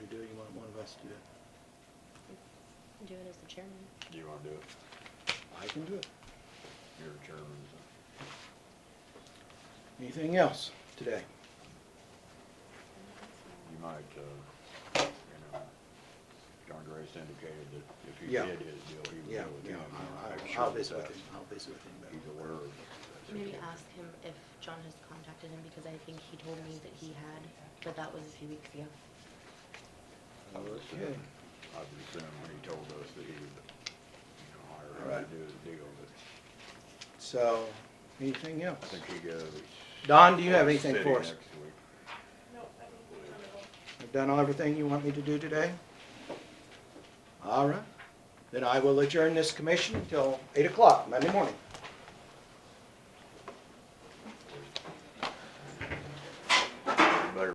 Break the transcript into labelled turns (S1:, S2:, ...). S1: us do it.
S2: Do it as the chairman.
S3: Do you wanna do it?
S1: I can do it.
S3: You're a chairman,
S1: Anything else today?
S3: so you might, uh, you know, John Grace indicated that if he
S1: Yeah.
S3: did his deal, he would
S1: Yeah,
S3: deal with
S1: yeah,
S3: him.
S1: I'll-
S3: I'm
S1: I'll,
S3: sure
S1: I'll
S3: that
S1: visit with him,
S3: that's-
S1: I'll visit with him. about
S3: He's
S1: it.
S3: aware of that.
S2: Maybe ask him if John has contacted him, because I think he told me that he had, but that was a few weeks ago.
S3: I would
S1: Okay.
S3: assume, I would assume when he told us that he would, you know,
S1: All
S3: hire him
S1: right.
S3: to do his deal, but
S1: So, anything else?
S3: I think he goes.
S1: Don, do you have anything
S3: City
S1: for us?
S3: next week.
S1: I've done all everything you want me to do today? All right, then I will adjourn this commission until eight o'clock Monday morning.